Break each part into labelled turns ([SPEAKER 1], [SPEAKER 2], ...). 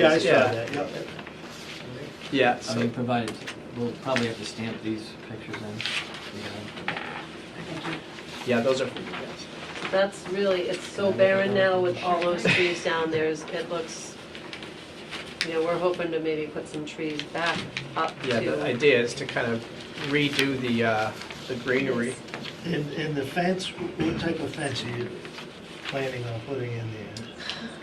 [SPEAKER 1] Yeah, I saw
[SPEAKER 2] Yeah.
[SPEAKER 1] that, yep.
[SPEAKER 2] Yeah,
[SPEAKER 3] I mean, provided, we'll probably have to stamp these pictures in.
[SPEAKER 2] yeah, those are for you guys.
[SPEAKER 4] That's really, it's so barren now with all those trees down there, is- it looks, you know, we're hoping to maybe put some trees back up to.
[SPEAKER 2] Yeah, the idea is to kind of redo the, uh, the greenery.
[SPEAKER 1] And, and the fence, what type of fence are you planning on putting in there?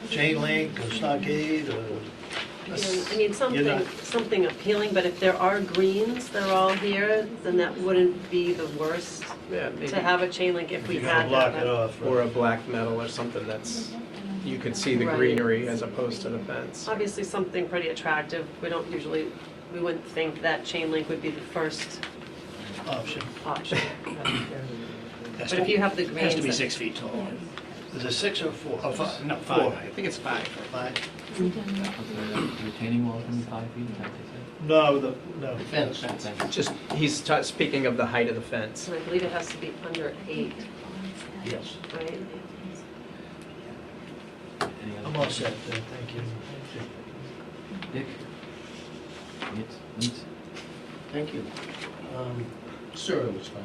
[SPEAKER 1] Chain link or stockade or?
[SPEAKER 4] You know, I mean,
[SPEAKER 1] You're
[SPEAKER 4] something,
[SPEAKER 1] not-
[SPEAKER 4] something appealing, but if there are greens, they're all here, then that wouldn't be the worst
[SPEAKER 2] Yeah, maybe.
[SPEAKER 4] to have a chain link if we
[SPEAKER 1] You're gonna
[SPEAKER 4] had
[SPEAKER 1] block
[SPEAKER 4] that.
[SPEAKER 1] it off,
[SPEAKER 2] Or a
[SPEAKER 1] right?
[SPEAKER 2] black metal or something that's, you could see the
[SPEAKER 4] Right.
[SPEAKER 2] greenery as opposed to the fence.
[SPEAKER 4] Obviously, something pretty attractive, we don't usually, we wouldn't think that chain link would be the first
[SPEAKER 1] option.
[SPEAKER 4] option.
[SPEAKER 5] Has
[SPEAKER 4] But
[SPEAKER 5] to
[SPEAKER 4] if
[SPEAKER 5] be-
[SPEAKER 4] you have the greens.
[SPEAKER 5] Has to be
[SPEAKER 4] that-
[SPEAKER 5] six feet tall.
[SPEAKER 1] Is it six or four?
[SPEAKER 5] Oh, fi- no,
[SPEAKER 1] Four.
[SPEAKER 5] five, I think it's five.
[SPEAKER 1] Five?
[SPEAKER 3] Yeah, okay, Retaining wall can be five feet, is that what
[SPEAKER 1] No, the, no.
[SPEAKER 5] Fence.
[SPEAKER 3] they said? Fence.
[SPEAKER 2] Just, he's ta- speaking of the height of the fence.
[SPEAKER 4] And I believe it has to be under eight,
[SPEAKER 1] Yes.
[SPEAKER 4] right?
[SPEAKER 3] Any other
[SPEAKER 1] I'm all set then, thank you.
[SPEAKER 3] questions? Dick? Neat, neat,
[SPEAKER 5] Thank you. Um, Sir, it was fine.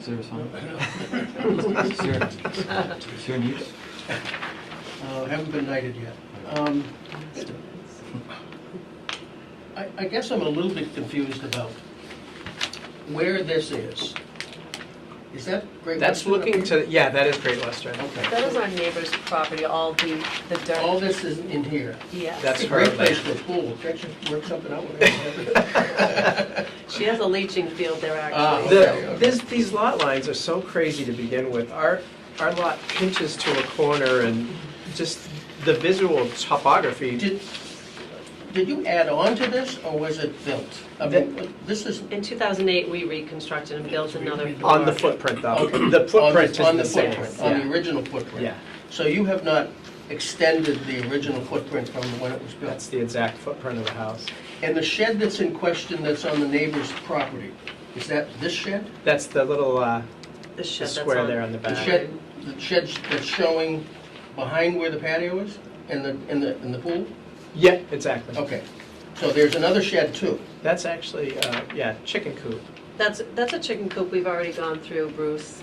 [SPEAKER 3] sir, fine? Sir, sir, neat?
[SPEAKER 5] Uh, Haven't been knighted yet. Um, I I guess I'm a little bit confused about where this is. Is that Great
[SPEAKER 2] That's
[SPEAKER 5] Western up
[SPEAKER 2] looking
[SPEAKER 5] here?
[SPEAKER 2] to, yeah, that is Great Western.
[SPEAKER 4] That
[SPEAKER 5] Okay.
[SPEAKER 4] is our neighbor's property, all the, the
[SPEAKER 5] All
[SPEAKER 4] dirt,
[SPEAKER 5] this is in here.
[SPEAKER 4] yes.
[SPEAKER 2] That's
[SPEAKER 5] It's a
[SPEAKER 2] her
[SPEAKER 5] great place
[SPEAKER 2] land.
[SPEAKER 5] for a pool. Can't you work something out with it?
[SPEAKER 4] She has a leaching field there,
[SPEAKER 5] Ah,
[SPEAKER 4] actually.
[SPEAKER 5] okay,
[SPEAKER 2] The,
[SPEAKER 5] okay.
[SPEAKER 2] this, these lot lines are so crazy to begin with. Our, our lot pinches to a corner and just the visual topography.
[SPEAKER 5] Did, did you add on to this, or was it built? I mean, this is,
[SPEAKER 4] In 2008, we reconstructed and built another.
[SPEAKER 2] On the
[SPEAKER 4] barn.
[SPEAKER 2] footprint though,
[SPEAKER 5] Okay.
[SPEAKER 2] Oh, the footprint is
[SPEAKER 5] on- on
[SPEAKER 2] the same.
[SPEAKER 5] footprint, On
[SPEAKER 2] Yeah.
[SPEAKER 5] the original footprint?
[SPEAKER 2] Yeah.
[SPEAKER 5] So you have not extended the original footprint from when it was
[SPEAKER 2] That's
[SPEAKER 5] built?
[SPEAKER 2] the exact footprint of the house.
[SPEAKER 5] And the shed that's in question that's on the neighbor's property, is that this shed?
[SPEAKER 2] That's the little, uh,
[SPEAKER 4] The
[SPEAKER 2] the
[SPEAKER 4] shed that's
[SPEAKER 2] square
[SPEAKER 4] on-
[SPEAKER 2] there on the
[SPEAKER 5] The
[SPEAKER 2] back.
[SPEAKER 5] shed, the shed that's showing behind where the patio is and the, and the, and the pool?
[SPEAKER 2] Yeah, exactly.
[SPEAKER 5] Okay. So there's another shed too?
[SPEAKER 2] That's actually, uh, yeah, chicken coop.
[SPEAKER 4] That's, that's a chicken coop we've already gone through, Bruce.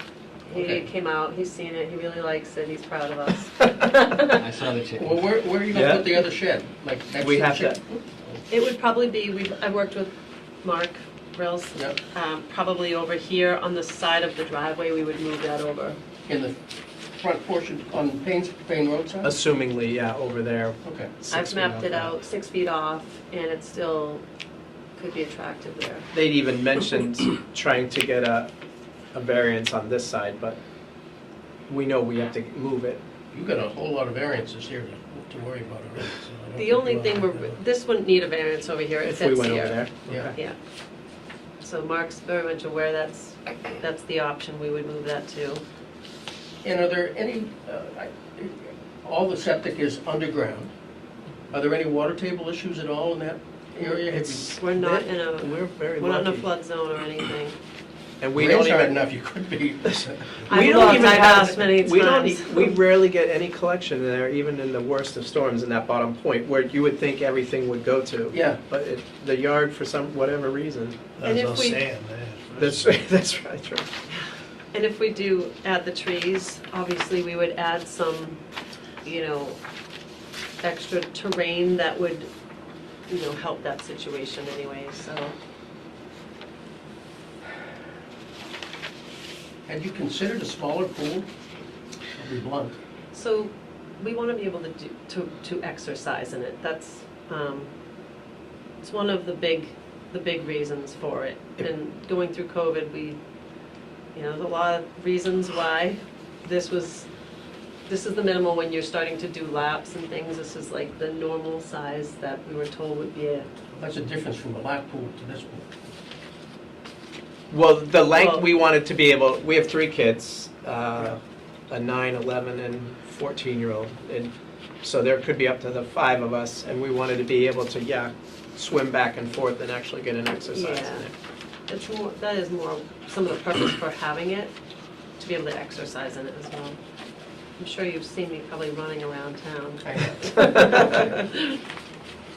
[SPEAKER 4] He
[SPEAKER 5] Okay.
[SPEAKER 4] came out, he's seen it, he really likes it, he's proud of us.
[SPEAKER 3] I saw the chicken.
[SPEAKER 5] Well, where, where are you gonna
[SPEAKER 2] Yeah.
[SPEAKER 5] put the other shed? Like next
[SPEAKER 2] We
[SPEAKER 5] to the
[SPEAKER 2] have to-
[SPEAKER 5] chick-
[SPEAKER 4] It would probably be, we've, I worked with Mark Rills,
[SPEAKER 5] Yep.
[SPEAKER 4] um, probably over here on the side of the driveway, we would move that over.
[SPEAKER 5] In the front portion on Payne's, Payne Road side?
[SPEAKER 2] Assumingly, yeah, over there.
[SPEAKER 5] Okay.
[SPEAKER 2] six
[SPEAKER 4] I've
[SPEAKER 2] feet
[SPEAKER 4] mapped it
[SPEAKER 2] off.
[SPEAKER 4] out, six feet off, and it still could be attractive there.
[SPEAKER 2] They'd even mentioned trying to get a, a variance on this side, but we know we have to move it.
[SPEAKER 5] You've got a whole lot of variances here to to worry about already. so I don't
[SPEAKER 4] The only
[SPEAKER 5] think
[SPEAKER 4] thing
[SPEAKER 5] we'll
[SPEAKER 4] we're,
[SPEAKER 5] have to-
[SPEAKER 4] this wouldn't need a variance over here, it
[SPEAKER 2] If we
[SPEAKER 4] fits
[SPEAKER 2] went over
[SPEAKER 4] here.
[SPEAKER 2] there.
[SPEAKER 5] Yeah.
[SPEAKER 2] Okay.
[SPEAKER 4] Yeah. So Mark's very much aware that's, that's the option, we would move that to.
[SPEAKER 5] And are there any, uh, I- all the septic is underground. Are there any water table issues at all in that area? Have
[SPEAKER 2] It's,
[SPEAKER 4] We're not in a-
[SPEAKER 2] We're very
[SPEAKER 4] We're not in a
[SPEAKER 2] lucky.
[SPEAKER 4] flood zone or anything.
[SPEAKER 2] And
[SPEAKER 5] you-
[SPEAKER 2] we don't
[SPEAKER 5] Rains aren't
[SPEAKER 2] even.
[SPEAKER 5] enough, you could be.
[SPEAKER 2] we
[SPEAKER 4] I've
[SPEAKER 2] don't
[SPEAKER 4] looked,
[SPEAKER 2] even
[SPEAKER 4] I've
[SPEAKER 2] have-
[SPEAKER 4] asked many
[SPEAKER 2] We don't,
[SPEAKER 4] times.
[SPEAKER 2] e- we rarely get any collection there, even in the worst of storms in that bottom point, where you would think everything would go to.
[SPEAKER 5] Yeah.
[SPEAKER 2] But it, the yard, for some, whatever reason,
[SPEAKER 4] And
[SPEAKER 1] That's
[SPEAKER 4] if
[SPEAKER 1] all
[SPEAKER 4] we-
[SPEAKER 1] sand there.
[SPEAKER 2] that's, that's right, true.
[SPEAKER 4] And if we do add the trees, obviously, we would add some, you know, extra terrain that would, you know, help that situation anyway, so.
[SPEAKER 5] Had you considered a smaller pool? I'll be blunt.
[SPEAKER 4] So we want to be able to do, to, to exercise in it, that's, um, it's one of the big, the big reasons for it. And going through COVID, we, you know, there's a lot of reasons why this was, this is the minimal when you're starting to do laps and things, this is like the normal size that we were told would be a,
[SPEAKER 5] That's a difference from a lap pool to this pool.
[SPEAKER 2] Well, the length,
[SPEAKER 4] Well-
[SPEAKER 2] we wanted to be able, we have three kids, uh, a nine, 11, and 14-year-old. And so there could be up to the five of us, and we wanted to be able to, yeah, swim back and forth and actually get an exercise in
[SPEAKER 4] Yeah.
[SPEAKER 2] it.
[SPEAKER 4] it's more, that is more, some of the purpose for having it, to be able to exercise in it as well. I'm sure you've seen me probably running around town.
[SPEAKER 5] I know.